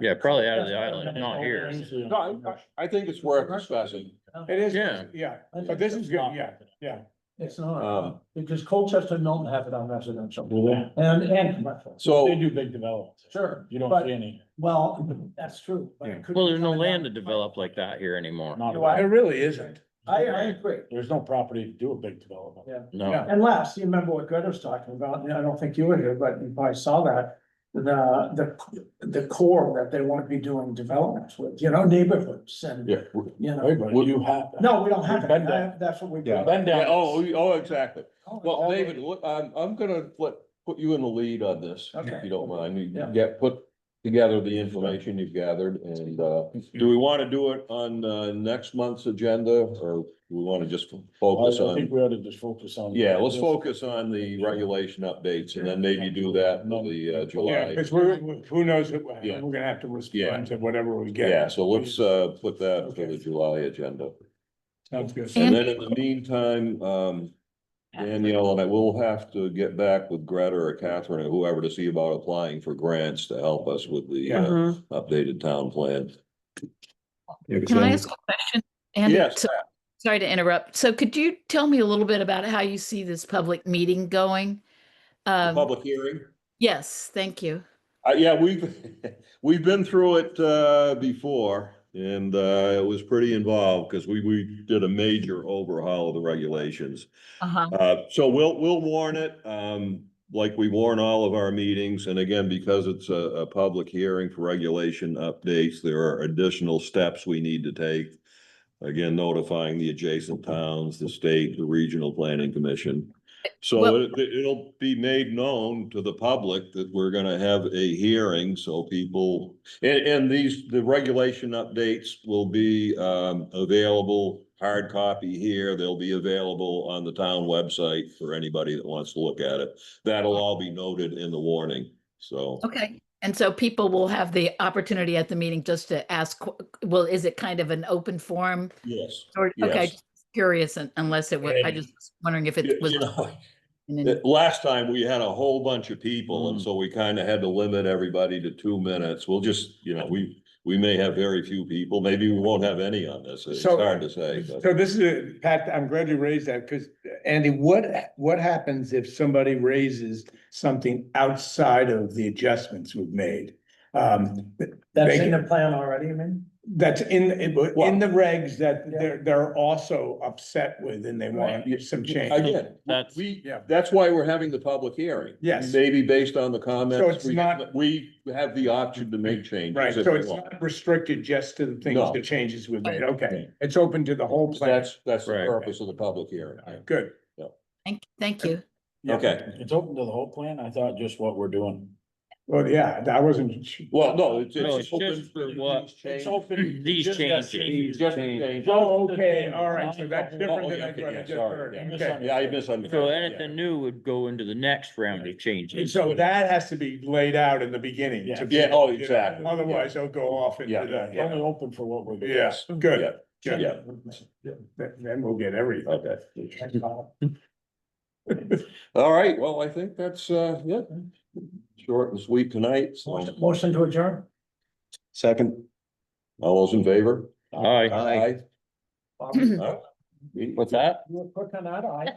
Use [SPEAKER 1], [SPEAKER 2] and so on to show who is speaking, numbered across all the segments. [SPEAKER 1] Yeah, probably out of the island, not here.
[SPEAKER 2] No, I- I, I think it's worth discussing.
[SPEAKER 3] It is,
[SPEAKER 1] Yeah.
[SPEAKER 3] yeah, but this is good, yeah, yeah.
[SPEAKER 4] It's not,
[SPEAKER 2] Um,
[SPEAKER 4] because Colchester and Milton have it on residential
[SPEAKER 5] Well,
[SPEAKER 4] and, and commercial,
[SPEAKER 5] They
[SPEAKER 2] So,
[SPEAKER 5] do big development.
[SPEAKER 4] sure.
[SPEAKER 5] You don't
[SPEAKER 4] but-
[SPEAKER 5] see any,
[SPEAKER 4] Well, that's true. but it could
[SPEAKER 1] Well,
[SPEAKER 4] be
[SPEAKER 1] there's no
[SPEAKER 4] coming
[SPEAKER 1] land to
[SPEAKER 4] down.
[SPEAKER 1] develop like that here anymore.
[SPEAKER 5] not,
[SPEAKER 3] Well, It
[SPEAKER 5] at all.
[SPEAKER 3] really isn't.
[SPEAKER 4] I, I agree,
[SPEAKER 5] there's no property to do a big development.
[SPEAKER 4] yeah.
[SPEAKER 1] No,
[SPEAKER 3] Yeah.
[SPEAKER 4] Unless, you remember what Greta was talking about, and I don't think you were here, but you probably saw that. The, the, the core that they want to be doing developments with, you know, neighborhoods and,
[SPEAKER 2] yeah.
[SPEAKER 4] you know.
[SPEAKER 5] Everybody, you have.
[SPEAKER 4] No, we don't have
[SPEAKER 5] We've
[SPEAKER 4] it.
[SPEAKER 5] been there.
[SPEAKER 4] I- That's what we've.
[SPEAKER 2] Yeah.
[SPEAKER 5] Been
[SPEAKER 2] Yeah,
[SPEAKER 5] down.
[SPEAKER 2] oh, we- oh, exactly.
[SPEAKER 4] Oh,
[SPEAKER 2] Well,
[SPEAKER 4] okay.
[SPEAKER 2] David, look, I'm, I'm gonna let, put you in the lead on this, if
[SPEAKER 4] Okay.
[SPEAKER 2] you don't mind. You
[SPEAKER 4] Yeah.
[SPEAKER 2] get, put together the information you've gathered and, uh, do we wanna do it on, uh, next month's agenda or we wanna just focus
[SPEAKER 5] I
[SPEAKER 2] on?
[SPEAKER 5] think we ought to just focus on.
[SPEAKER 2] Yeah, let's focus on the regulation updates and then maybe do that in the uh,
[SPEAKER 3] Yeah,
[SPEAKER 2] July.
[SPEAKER 3] because we're, who knows, what-
[SPEAKER 2] Yeah.
[SPEAKER 3] we're gonna have to
[SPEAKER 2] Yeah.
[SPEAKER 3] respond to whatever we get.
[SPEAKER 2] Yeah, so let's uh put that for the July agenda.
[SPEAKER 3] Sounds good.
[SPEAKER 2] And then in the meantime, um, Danielle and I will have to get back with Greta or Catherine or whoever to see about applying for grants to help us with the uh,
[SPEAKER 6] Mhm.
[SPEAKER 2] updated town plan.
[SPEAKER 6] Can I ask a question? Andy?
[SPEAKER 2] Yes,
[SPEAKER 6] So- Sorry to interrupt. So could you tell me a little bit about how you see this public meeting going?
[SPEAKER 2] the
[SPEAKER 6] Um,
[SPEAKER 2] public hearing.
[SPEAKER 6] yes, thank you.
[SPEAKER 2] Uh, yeah, we've, we've been through it, uh, before and, uh, it was pretty involved because we, we did a major overhaul of the regulations.
[SPEAKER 6] Uh-huh.
[SPEAKER 2] Uh, so we'll, we'll warn it, um, like we warn all of our meetings. And again, because it's a, a public hearing for regulation updates, there are additional steps we need to take. Again, notifying the adjacent towns, the state, the regional planning commission. So
[SPEAKER 6] Well-
[SPEAKER 2] it, it'll be made known to the public that we're gonna have a hearing, so people, and, and these, the regulation updates will be, um, available, hard copy here, they'll be available on the town website for anybody that wants to look at it. That'll all be noted in the warning, so.
[SPEAKER 6] Okay. And so people will have the opportunity at the meeting just to ask, qu- well, is it kind of an open forum?
[SPEAKER 2] Yes.
[SPEAKER 6] Or, okay,
[SPEAKER 2] Yes.
[SPEAKER 6] just curious un- unless it was, I
[SPEAKER 2] And-
[SPEAKER 6] just was wondering if
[SPEAKER 2] You
[SPEAKER 6] it was.
[SPEAKER 2] you know,
[SPEAKER 6] in an-
[SPEAKER 2] Uh, Last time, we had a whole bunch of people, and
[SPEAKER 5] Mm.
[SPEAKER 2] so we kind of had to limit everybody to two minutes. We'll just, you know, we, we may have very few people, maybe we won't have any on this. It's
[SPEAKER 3] So-
[SPEAKER 2] hard to say, but
[SPEAKER 3] So this is, a- Pat, I'm glad you raised that, because Andy, what, what happens if somebody raises something outside of the adjustments we've made? Um,
[SPEAKER 4] That's
[SPEAKER 3] Thank
[SPEAKER 4] in
[SPEAKER 3] you.
[SPEAKER 4] the plan already, I mean.
[SPEAKER 3] that's in, in the regs that
[SPEAKER 4] Yeah.
[SPEAKER 3] they're, they're also upset with and they want some change.
[SPEAKER 2] again,
[SPEAKER 1] That's-
[SPEAKER 2] we,
[SPEAKER 3] Yeah.
[SPEAKER 2] that's why we're having the public hearing.
[SPEAKER 3] Yes.
[SPEAKER 2] Maybe based on the
[SPEAKER 3] it's
[SPEAKER 2] comments, we,
[SPEAKER 3] not-
[SPEAKER 2] we have the option to make changes.
[SPEAKER 3] Right,
[SPEAKER 2] if
[SPEAKER 3] so
[SPEAKER 2] we
[SPEAKER 3] it's
[SPEAKER 2] want.
[SPEAKER 3] not restricted just to the things,
[SPEAKER 2] No.
[SPEAKER 3] the changes we've made, okay, it's open to the whole plan,
[SPEAKER 2] That's, that's the
[SPEAKER 1] Right.
[SPEAKER 2] purpose of the public hearing.
[SPEAKER 3] good.
[SPEAKER 6] Thank, thank you.
[SPEAKER 2] Okay,
[SPEAKER 5] It's open to the whole plan. I thought just what we're doing.
[SPEAKER 3] Well, yeah, that wasn't,
[SPEAKER 2] well, no, it's,
[SPEAKER 1] No,
[SPEAKER 2] it's
[SPEAKER 1] it's
[SPEAKER 2] open
[SPEAKER 1] just
[SPEAKER 2] for
[SPEAKER 1] what-
[SPEAKER 2] these changes.
[SPEAKER 5] open.
[SPEAKER 1] These
[SPEAKER 5] Just got
[SPEAKER 1] changes.
[SPEAKER 5] changes.
[SPEAKER 2] Just changes.
[SPEAKER 3] oh, okay, all right, so that's
[SPEAKER 2] Oh,
[SPEAKER 3] different than
[SPEAKER 2] yeah,
[SPEAKER 3] I
[SPEAKER 2] okay,
[SPEAKER 3] what I
[SPEAKER 2] yeah,
[SPEAKER 3] just
[SPEAKER 2] sorry,
[SPEAKER 3] heard,
[SPEAKER 5] yeah.
[SPEAKER 3] okay.
[SPEAKER 2] Yeah, I misunderstood.
[SPEAKER 1] So
[SPEAKER 2] Yeah.
[SPEAKER 1] anything new would go into the next round of
[SPEAKER 3] And
[SPEAKER 1] changes.
[SPEAKER 3] so that has to be laid out in the beginning. to
[SPEAKER 5] Yeah.
[SPEAKER 3] be-
[SPEAKER 2] Yeah, oh, exactly, yeah.
[SPEAKER 3] Otherwise, they'll go off into
[SPEAKER 2] Yeah,
[SPEAKER 3] the,
[SPEAKER 5] It's
[SPEAKER 3] yeah,
[SPEAKER 5] Only open for what we're. doing.
[SPEAKER 3] yes, good.
[SPEAKER 2] Yeah, yeah.
[SPEAKER 3] Then then we'll get everything.
[SPEAKER 2] Okay. All right, well, I think that's, uh, yeah, short and sweet tonight, so.
[SPEAKER 4] Motion- Motion to adjourn,
[SPEAKER 2] Second. All those in favor?
[SPEAKER 1] Aye.
[SPEAKER 2] Aye.
[SPEAKER 4] Bobby.
[SPEAKER 1] What's that?
[SPEAKER 4] You were quick on that, I.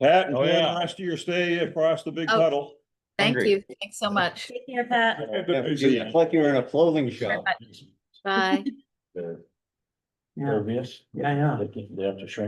[SPEAKER 2] Pat,
[SPEAKER 1] Oh,
[SPEAKER 2] enjoy
[SPEAKER 1] yeah.
[SPEAKER 2] the rest of your stay across the big
[SPEAKER 6] Oh.
[SPEAKER 2] puddle.
[SPEAKER 6] Thank
[SPEAKER 1] Hungry.
[SPEAKER 6] you. Thanks so much.
[SPEAKER 7] Take care, Pat.
[SPEAKER 3] Yeah.
[SPEAKER 6] Bye.
[SPEAKER 5] They're
[SPEAKER 4] Yeah,
[SPEAKER 5] Nervous.
[SPEAKER 4] yeah, yeah.
[SPEAKER 5] They have to shrink.